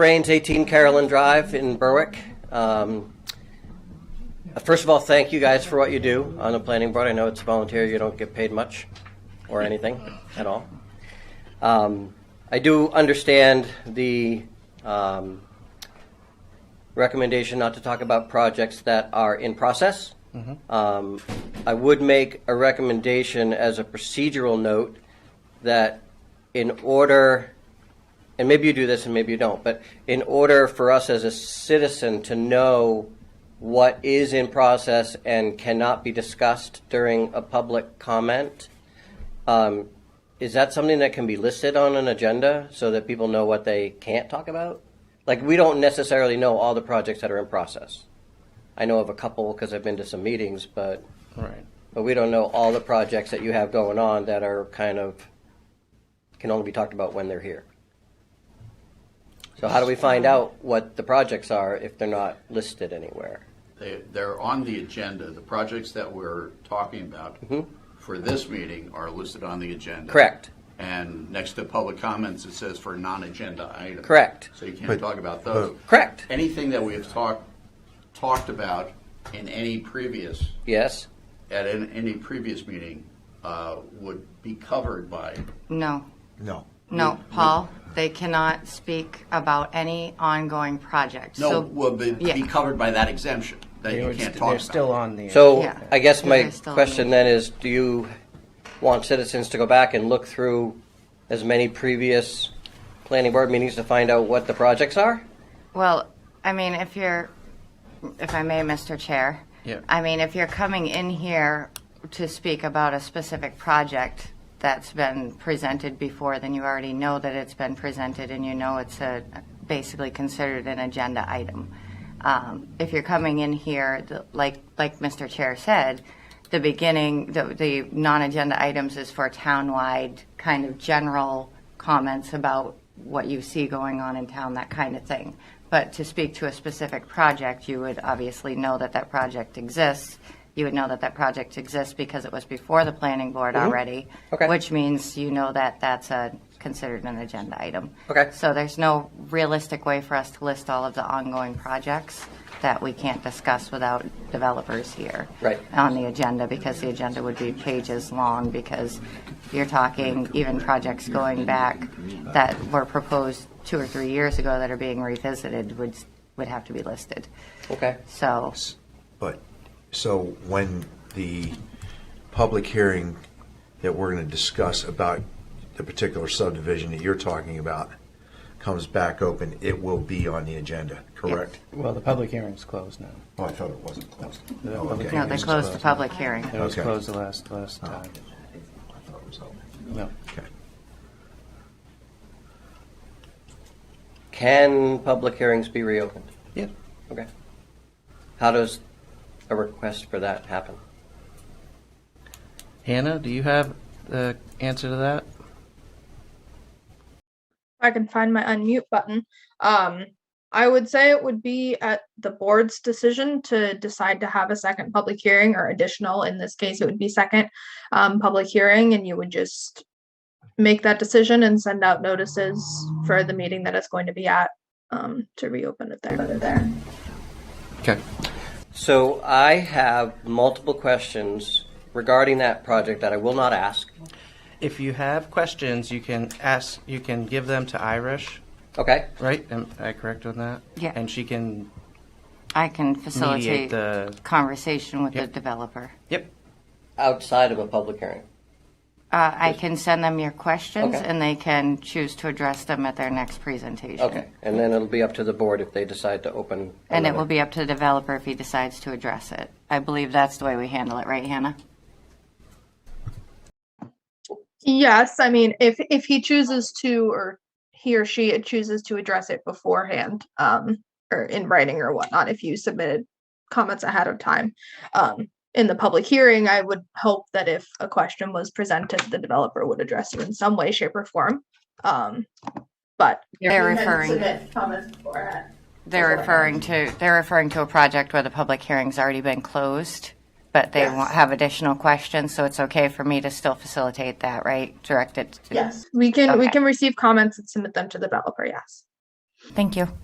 Brains, 18 Carolyn Drive in Berwick. Um, First of all, thank you guys for what you do on the planning board. I know it's volunteer, you don't get paid much or anything at all. Um, I do understand the um, recommendation not to talk about projects that are in process. Um, I would make a recommendation as a procedural note that in order, and maybe you do this and maybe you don't, but in order for us as a citizen to know what is in process and cannot be discussed during a public comment, um, is that something that can be listed on an agenda so that people know what they can't talk about? Like, we don't necessarily know all the projects that are in process. I know of a couple because I've been to some meetings, but, Right. but we don't know all the projects that you have going on that are kind of, can only be talked about when they're here. So how do we find out what the projects are if they're not listed anywhere? They, they're on the agenda. The projects that we're talking about for this meeting are listed on the agenda. Correct. And next to public comments, it says for non-agenda items. Correct. So you But- can't talk about those. Correct. Anything that we have talked, talked about in any previous, Yes. at an- any previous meeting, uh, would be covered by, No, No. no, Paul, they cannot speak about any ongoing project. no, So- would be, be Yeah. covered by that exemption that you can't talk about. They're still on the. So Yeah. I guess my Yeah, I still question mean- then is, do you want citizens to go back and look through as many previous planning board meetings to find out what the projects are? Well, I mean, if you're, if I may, Mr. Chair. Yeah. I mean, if you're coming in here to speak about a specific project that's been presented before, then you already know that it's been presented and you know it's a, basically considered an agenda item. Um, If you're coming in here, the- like, like Mr. Chair said, the beginning, the, the non-agenda items is for townwide kind of general comments about what you see going on in town, that kind of thing. But to speak to a specific project, you would obviously know that that project exists. You would know that that project exists because it was before the planning board already. Mm-hmm. Okay. Which means you know that that's a, considered an agenda item. Okay. So there's no realistic way for us to list all of the ongoing projects that we can't discuss without developers here Right. on the agenda because the agenda would be pages long because you're talking even projects going back that were proposed two or three years ago that are being revisited would, would have to be listed. Okay. So, But, so when the public hearing that we're going to discuss about the particular subdivision that you're talking about comes back open, it will be on the agenda, correct? Well, the public hearing's closed now. Oh, I thought it wasn't closed. The Oh, public okay. no, they hearing's closed the public hearing. It was Okay. Oh. closed the last, last time. I thought it was open. No. Okay. Can public hearings be reopened? Yeah. Okay. How does a request for that happen? Hannah, do you have the answer to that? I can find my unmute button. Um, I would say it would be at the board's decision to decide to have a second public hearing or additional, in this case, it would be second um, public hearing, and you would just make that decision and send out notices for the meeting that it's going to be at um, to reopen it there. Okay. So I have multiple questions regarding that project that I will not ask. If you have questions, you can ask, you can give them to Irish, Okay? right? Am I correct on that? Yeah. And she can I can mediate facilitate the, conversation with the Yep. developer. yep, Outside of a public hearing. Uh, I can send them your questions Okay. and they can choose to address them at their next presentation. Okay. And then it'll be up to the board if they decide to open. And it another- will be up to the developer if he decides to address it. I believe that's the way we handle it, right, Hannah? Yes, I mean, if if he chooses to, or he or she chooses to address it beforehand, um, or in writing or whatnot, if you submitted comments ahead of time, um, in the public hearing, I would hope that if a question was presented, the developer would address it in some way, shape, or form. Um, but They're referring, comments beforehand. they're referring to, they're referring to a project where the public hearing's already been closed, but they Yes. wa- have additional questions, so it's okay for me to still facilitate that, right? Direct it to. We can we Okay. can receive comments and submit them to the developer. Yes. Thank you.